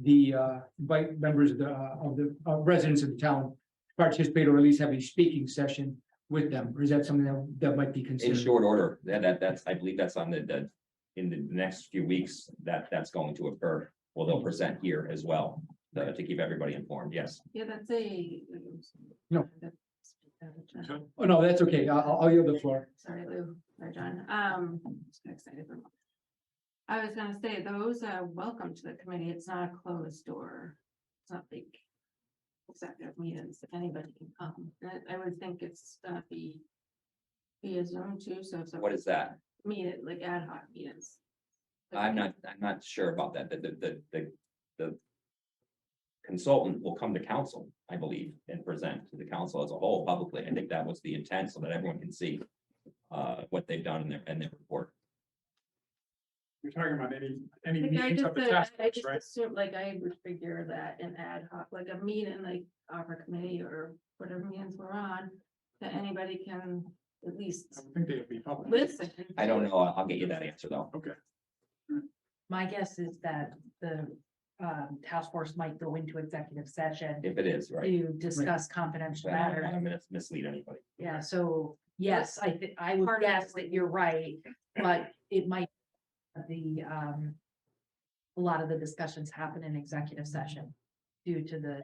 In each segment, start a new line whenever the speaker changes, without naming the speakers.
the uh, invite members of the, uh, of the uh, residents of the town participate or at least have a speaking session with them, or is that something that, that might be
In
considered?
short order, that, that, that's, I believe that's on the, the, in the next few weeks, that, that's going to occur. Well, they'll present here as well, uh, to keep everybody informed, yes.
Yeah, that's a.
No.
That's-
Oh, no, that's okay. I- I'll, I'll yield the floor.
Sorry, Lou, or John, um, I'm just excited. for- I was gonna say, those are welcome to the committee, it's not a closed door, it's not like. Executive meetings, if anybody can come, I, I would think it's gonna be. Via Zoom too, so if
What
someone
is that?
meet it like ad hoc meetings.
I'm not, I'm not sure about that, the, the, the, the, the consultant will come to council, I believe, and present to the council as a whole publicly. I think that was the intent, so that everyone can see uh, what they've done in their, in their report.
You're talking about any, any
Like I
meetings
just,
of the
uh,
task
I
force,
just
right?
assume, like, I would figure that an ad hoc, like a meeting, like our committee or whatever meetings we're on, that anybody can at
I
least
would think they would be public.
listen.
I don't know, I'll I'll get you that answer though.
My guess is that the um task force might go into executive session
If it is, right?
to discuss confidential
But I don't
matters.
want to mislead anybody.
Yeah, so yes, I think I would guess that you're right, but it might the um a lot of the discussions happen in executive session due to the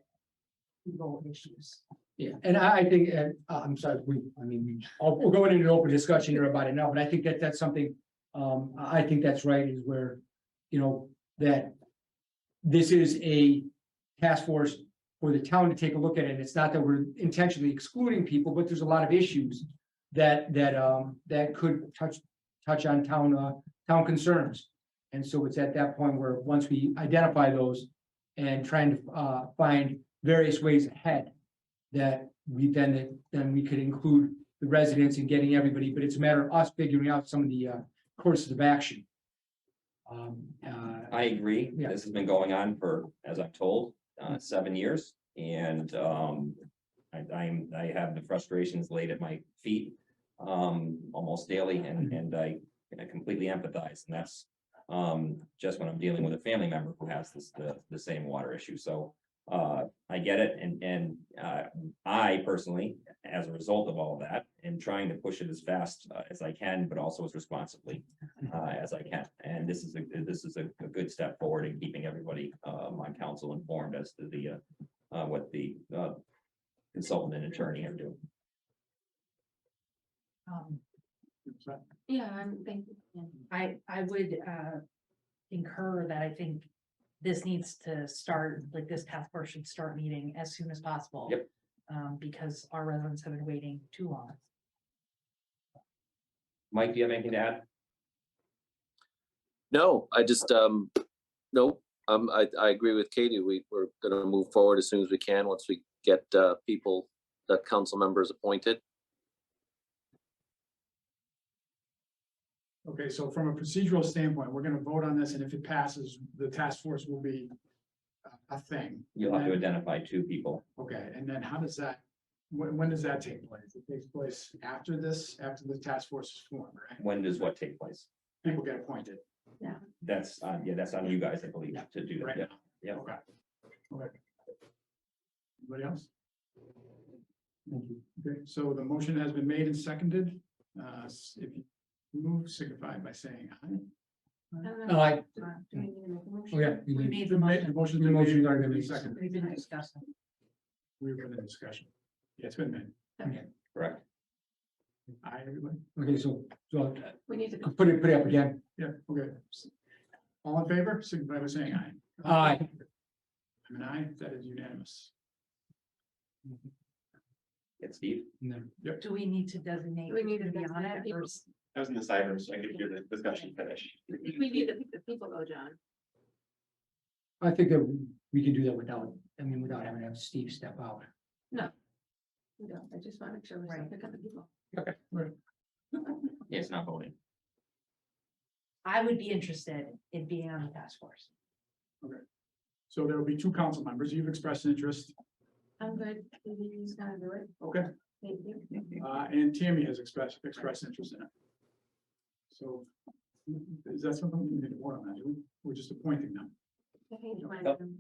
legal issues.
Yeah, and I, I think, uh, I'm sorry, we, I mean, we- I'll- we're going into an open discussion here about it now, but I think that that's something, um, I, I think that's right, is where, you know, that this is a task force for the town to take a look at, and it's not that we're intentionally excluding people, but there's a lot of issues that, that, um, that could touch, touch on town, uh, town concerns. And so it's at that point where, once we identify those and trying to, uh, find various ways ahead that we then, then we could include the residents in getting everybody, but it's a matter of us figuring out some of the uh, courses of action. Um, uh,
I agree.
Yeah.
This has been going on for, as I'm told, uh, seven years and, um, I, I'm, I have the frustrations laid at my feet, um, almost daily and, and I I completely empathize and that's, um, just when I'm dealing with a family member who has this, the, the same water issue. So, uh, I get it and, and, uh, I personally, as a result of all that, am trying to push it as fast uh, as I can, but also as responsibly uh, as I can. And this is a, this is a, a good step forward in keeping everybody, uh, my council informed as to the, uh, uh, what the, uh, consultant and attorney are doing.
Um,
So,
Yeah, I'm thinking, yeah.
I, I would, uh, incur that I think this needs to start, like this task force should start meeting as soon as possible.
Yep.
Um, because our residents have been waiting too long.
Mike, do you have anything to add?
No, I just, um, no, um, I, I agree with Katie. We, we're gonna move forward as soon as we can, once we get, uh, people, the council members appointed.
Okay, so from a procedural standpoint, we're gonna vote on this, and if it passes, the task force will be a- a thing.
You'll have to identify two people.
Okay, and then how does that, when, when does that take place? It takes place after this, after the task force is formed, right?
When does what take place?
People get appointed
That's, uh, yeah, that's on you guys, I believe, to do that.
right
Yeah.
now.
Yeah.
Okay. Okay. Anybody else?
Thank you.
Okay, so the motion has been made and seconded. Uh, s- if you move, signify by saying aye.
And
Uh,
then,
I-
uh, do we need to make a motion?
oh, yeah, you
We
can-
made the motion,
Motion's
The
been made
motion's
and
already been made.
seconded.
we've been discussing.
We've been in discussion. Yeah, it's been made.
Correct.
Aye, everybody?
okay, so, so
We need to.
I'll put it, put it up again.
Yeah, okay. S- All in favor, signify by saying aye.
Aye.
I'm an aye, that is unanimous.
It's Steve.
And then-
Do we need to designate?
We need to
who's gonna be on
designate
it
people.
or-
That was in the cyber, so I could hear the discussion finish.
I think We need to pick the people though, John.
I think that we can do that without, I mean, without having to have Steve step out.
You know, I just want to make sure we
Right.
pick up the people.
Yeah, it's not voting.
I would be interested in being on the task force.
So there will be two council members. You've expressed interest,
I'm good, he's gonna do it,
okay,
thank you.
uh, and Tammy has expressed, expressed interest in it. So is that something we need to vote on? that? We're just appointing them.
I think you might have-